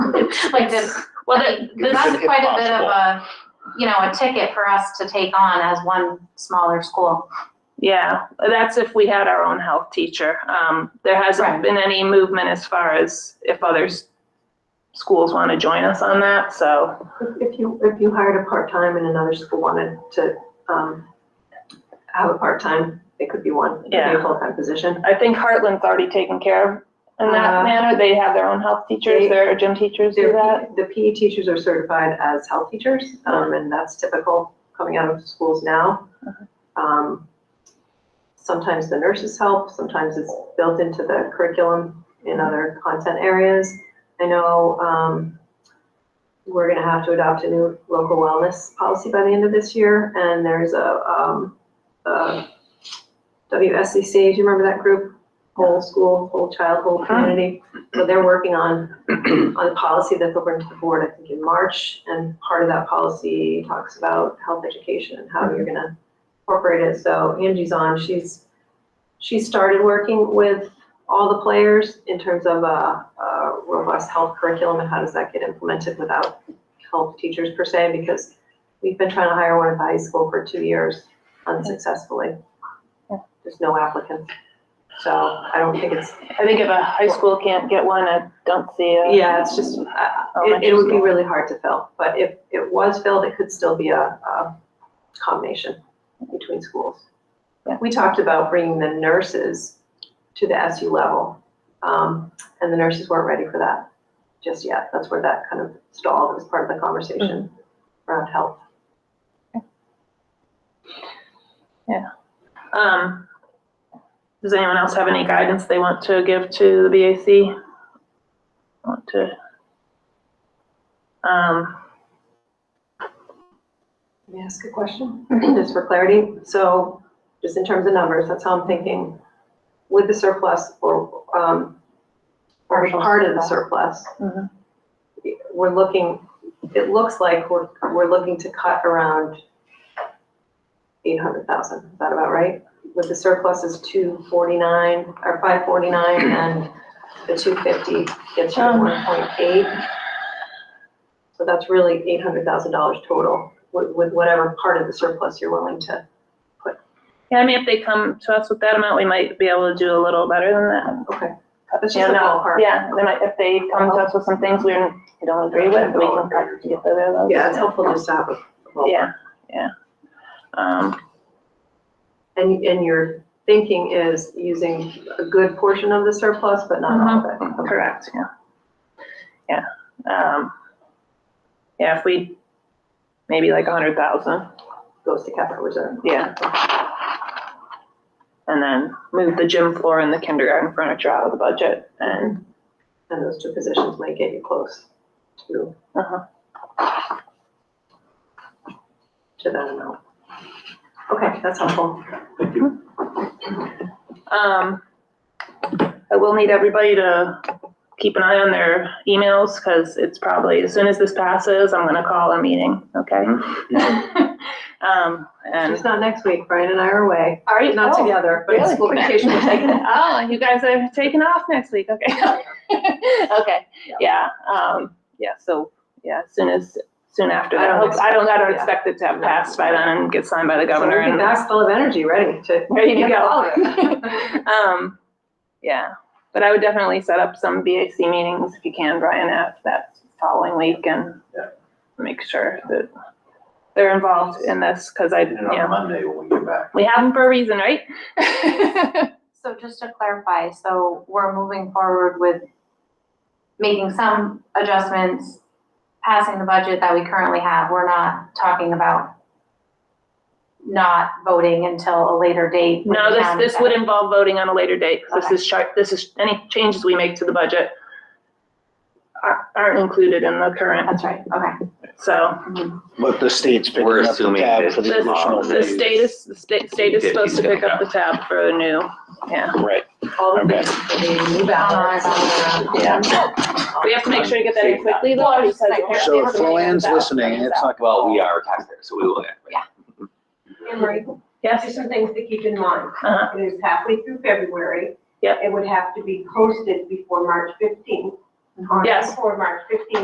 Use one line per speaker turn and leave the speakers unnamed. like this, well, the- this is quite a bit of a, you know, a ticket for us to take on as one smaller school.
Yeah, that's if we had our own health teacher. Um, there
Right.
hasn't been any movement as far as if others schools want to join us on that, so.
If you, if you hired a part-time and another school wanted to, um, have a part-time, it could be one, it could be a
Yeah.
full-time position.
I think Heartland's already taken care of in that
Uh,
manner. They have their own health teachers,
they-
their gym teachers do that.
They're- The PE teachers are certified as health teachers, um, and that's typical coming out of schools now.
Uh-huh.
Um, Sometimes the nurses help, sometimes it's built into the curriculum in other content areas. I know, um, we're gonna have to adopt a new local wellness policy by the end of this year, and there's a, um, a WSCC, do you remember that group? Whole school, whole child,
Uh-huh.
whole community, so they're working on, on a policy that they'll bring to the board, I think, in March, and part of that policy talks about health education and how you're gonna incorporate it, so Angie's on, she's, she started working with all the players in terms of a, a robust health curriculum and how does that get implemented without health teachers per se, because we've been trying to hire one at the high school for two years unsuccessfully.
Yeah.
There's no applicants. So I don't think it's,
I think if a high school can't get one, I don't see a.
yeah, it's just, uh, it, it would be really hard to fill, but if it was filled, it could still be a, a combination between schools.
Yeah.
We talked about bringing the nurses to the SU level, um, and the nurses weren't ready for that just yet. That's where that kind of stalled as part of the conversation around health.
Um, does anyone else have any guidance they want to give to the BAC? Want to? Um,
Let me ask a question, just for clarity. So just in terms of numbers, that's how I'm thinking. With the surplus or, um, or
Partial
part of the surplus,
Mhm.
we're looking, it looks like we're, we're looking to cut around eight hundred thousand. Is that about right? With the surplus is two forty-nine or five forty-nine and the two fifty gets you
Um.
one point eight. So that's really eight hundred thousand dollars total with, with whatever part of the surplus you're willing to.
yeah, I mean, if they come to us with that amount, we might be able to do a little better than that.
Okay. That's
You
just a
know,
ballpark.
yeah, they might, if they come to us with some things we don't we don't agree with, we can cut to get rid of those.
Yeah, it's helpful just to have a ballpark.
Yeah, yeah. Um,
And, and your thinking is using a good portion of the surplus, but not
Mm-hmm.
all of it.
correct, yeah. Yeah, um, yeah, if we, maybe like a hundred thousand.
Goes to capital reserve.
Yeah. And then move the gym floor and the kindergarten furniture out of the budget and,
And those two positions might get you close to,
uh-huh,
to that amount. Okay, that's helpful.
um, I will need everybody to keep an eye on their emails, because it's probably, as soon as this passes, I'm gonna call a meeting, okay? Um,
It's
and.
not next week, Brian and I are away,
Are
not together, but it's
really?
school vacation, we're taking it.
Oh, you guys are taking off next week, okay. Okay, yeah, um, yeah, so, yeah, as soon as, soon after
I
that, I
don't
hope- I don't, I don't
yeah.
expect it to have passed by then and get signed by the governor
So we'll be
and.
back full of energy, ready to.
Ready to
handle
go.
all of it.
Um, yeah, but I would definitely set up some BAC meetings if you can, Brian, at that following week and
Yeah.
make sure that they're involved in this, because I, you
And on
know,
Monday when we get back,
we have them for a reason, right?
So just to clarify, so we're moving forward with making some adjustments, passing the budget that we currently have. We're not talking about not voting until a later date. when
No,
the
this,
town
this
is-
would involve voting on a later date, 'cause
Okay.
this is chart, this is, any changes we make to the budget are- aren't included in the current,
That's right, okay.
so.
But the state's picking
We're
up the
assuming
tab
that
for the
this-
additional
The
days.
state is, the state, state is supposed to pick up the tab for the new, yeah.
Right,
All the
Okay.
things, that we move out, all around.
Yeah. We have to make sure to get that in quickly though, because. apparently
so if
everybody
Luann's
is out.
listening, it's not. gonna
Well, we
fall.
are taxpayers, so we will get.
Yeah.
Emery,
Yes,
just some things to keep in mind.
uh-huh,
It is halfway through February.
Yep.
It would have to be posted before March fifteenth.
Yes.
Before March fifteenth